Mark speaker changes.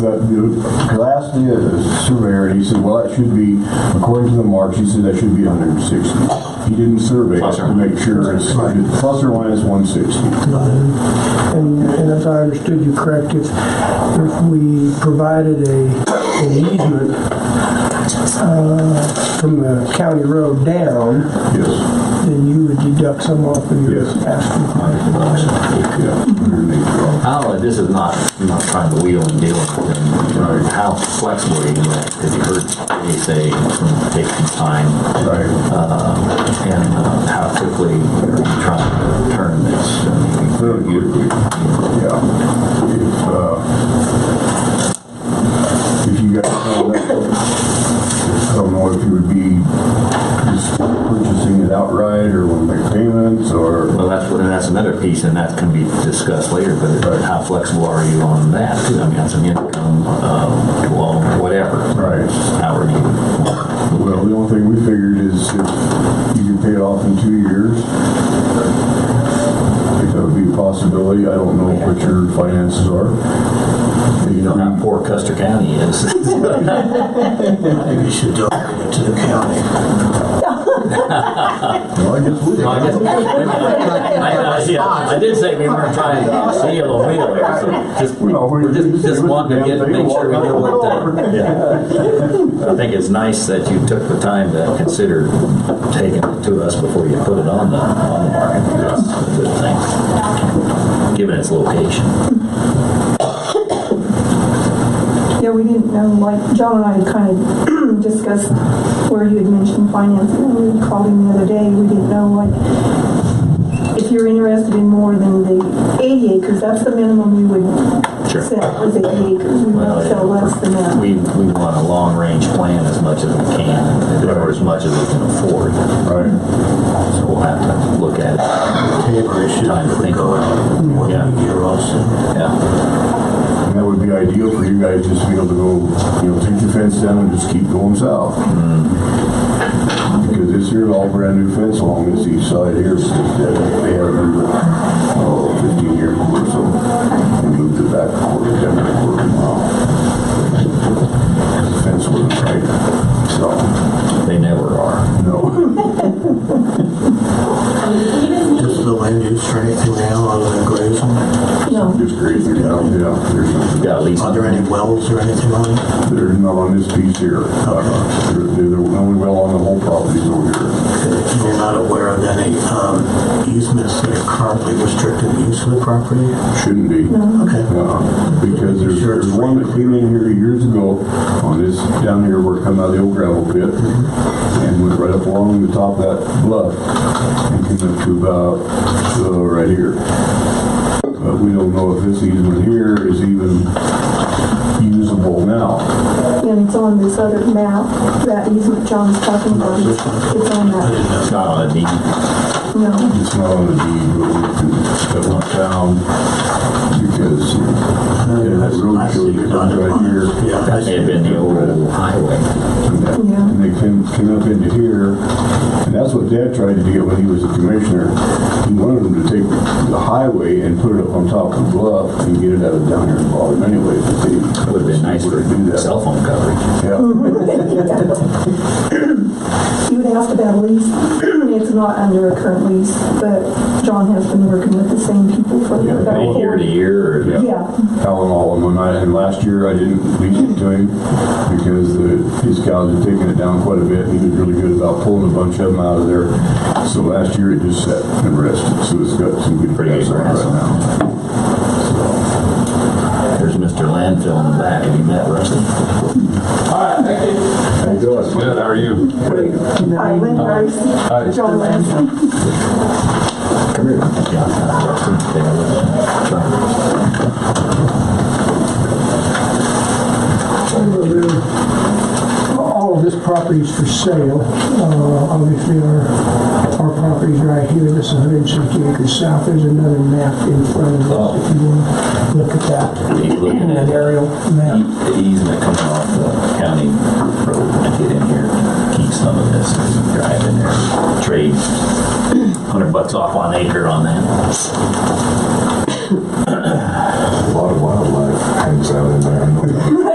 Speaker 1: But you know, 'cause I asked the surveyor, and he said, well, that should be, according to the marks, he said that should be 160. He didn't survey it
Speaker 2: Plus or
Speaker 1: to make sure it's plus or minus 160.
Speaker 3: And, and if I understood you correct, if, if we provided a, an easement, uh, from the county road down,
Speaker 1: Yes.
Speaker 3: then you would deduct some off of your
Speaker 1: Yes.
Speaker 3: asking price.
Speaker 1: Yeah, underneath.
Speaker 2: Oh, this is not, I'm not trying to wheel and deal with them.
Speaker 1: Right.
Speaker 2: How flexible are you going to, because you heard me say it's going to take some time,
Speaker 1: Right.
Speaker 2: uh, and uh, how quickly are you trying to turn this? uh, I mean,
Speaker 1: Very quickly. Yeah. If, uh, If you guys know that, I don't know if you would be just purchasing it outright or will make payments or.
Speaker 2: Well, that's, and that's another piece, and that can be discussed later, but how flexible are you on that? too? I mean, that's an income, uh, well, whatever.
Speaker 1: Right.
Speaker 2: How are you?
Speaker 1: Well, the only thing we figured is if you can pay it off in two years, I think that would be a possibility. I don't know what your finances are. You
Speaker 2: You know how
Speaker 1: know,
Speaker 2: poor Custer County is.
Speaker 4: Maybe you should donate it to the county.
Speaker 1: well, I guess we did.
Speaker 2: I guess- I- I- yeah, I did say we weren't trying to seal a wheel, so just,
Speaker 1: Well, we-
Speaker 2: we're just, just wanting to get, make sure we know what
Speaker 1: Walk
Speaker 2: the, yeah. I think it's nice that you took the time to consider taking it to us before you put it on the, on the market. That's a good thing, given its location.
Speaker 5: Yeah, we didn't know, like, John and I had kind of discussed where you had mentioned financing, and we called him the other day, we didn't know, like, if you're interested in more than the eighty acres, that's the minimum you would
Speaker 2: Sure.
Speaker 5: sell, is eighty acres, we
Speaker 2: Well,
Speaker 5: won't sell less than that.
Speaker 2: We, we want a long-range plan as much as we can, or as much as we can afford,
Speaker 1: Right.
Speaker 2: so we'll have to look at it.
Speaker 4: Tabor issue,
Speaker 2: Time to
Speaker 4: if we
Speaker 2: think
Speaker 4: go
Speaker 2: about
Speaker 4: out more than a year also.
Speaker 2: Yeah,
Speaker 1: And that would be ideal for you guys just to be able to go, you know, take your fence down and just keep going south. Because this here's all brand new fence along this east side here. so that They have them, oh, fifteen years or so. We moved it back a quarter, down a quarter mile. The Fence wasn't right, so,
Speaker 2: they never are.
Speaker 1: no.
Speaker 4: Just the land use for anything now other than grazing?
Speaker 5: No,
Speaker 1: Just grazing down, yeah, there's nothing.
Speaker 2: Got at least
Speaker 4: Are there any wells or anything on it?
Speaker 1: They're not on this piece here. Uh, They're, they're the only well on the whole property is over here.
Speaker 4: And You're not aware of any um, easements that are currently restricted use of the property?
Speaker 1: Shouldn't be.
Speaker 4: Okay.
Speaker 1: Uh, Because there's, there's one that came in here years ago on this, down here where it come out of the old gravel pit. And went right up along the top of that bluff and came up to about, uh, right here. But we don't know if this easement here is even usable now.
Speaker 5: and it's on this other map, that easement John's talking about, it's on that,
Speaker 2: It's not on a deed.
Speaker 5: no,
Speaker 1: It's not on the deed, but we can, that one found because
Speaker 4: Uh,
Speaker 1: yeah, that road shows it comes right here.
Speaker 4: Yeah, I
Speaker 2: That may
Speaker 4: see.
Speaker 2: have been the old highway.
Speaker 1: And they came, came up into here, and that's what Dad tried to get when he was a commissioner. He wanted them to take the highway and put it up on top of the bluff and get it out of down here in Baldwin anyway, but they.
Speaker 2: Would have been nice for
Speaker 1: wouldn't do that.
Speaker 2: cell phone coverage.
Speaker 1: Yeah,
Speaker 5: You would asked about a lease. It's not under a current lease, but John has been working with the same people for
Speaker 1: Yeah,
Speaker 5: about
Speaker 2: Maybe year
Speaker 5: four.
Speaker 2: to year or
Speaker 5: Yeah,
Speaker 1: Alan Allen, and I, and last year I didn't lease it to him because the, his cows had taken it down quite a bit. He was really good about pulling a bunch of them out of there. So last year it just sat and rested, so it's got some good
Speaker 2: Pretty good
Speaker 1: grass on it
Speaker 2: grass.
Speaker 1: right now.
Speaker 2: There's Mr. Landfill in the back. Have you met Rusty?
Speaker 1: How you doing?
Speaker 6: Good, how are you?
Speaker 5: I went first. John Lansing.
Speaker 2: Come here. Yeah, uh, Rusty. Take a look at that.
Speaker 3: All of this property is for sale. Uh, Obviously, our, our property's right here, this 160 acres south. There's another map in front of us if you want to look at that,
Speaker 2: Take a look at
Speaker 3: an
Speaker 2: that.
Speaker 3: aerial map.
Speaker 2: The easement coming off the county road to get in here, keep some of this, and drive in there, trade hundred bucks off on acre on that.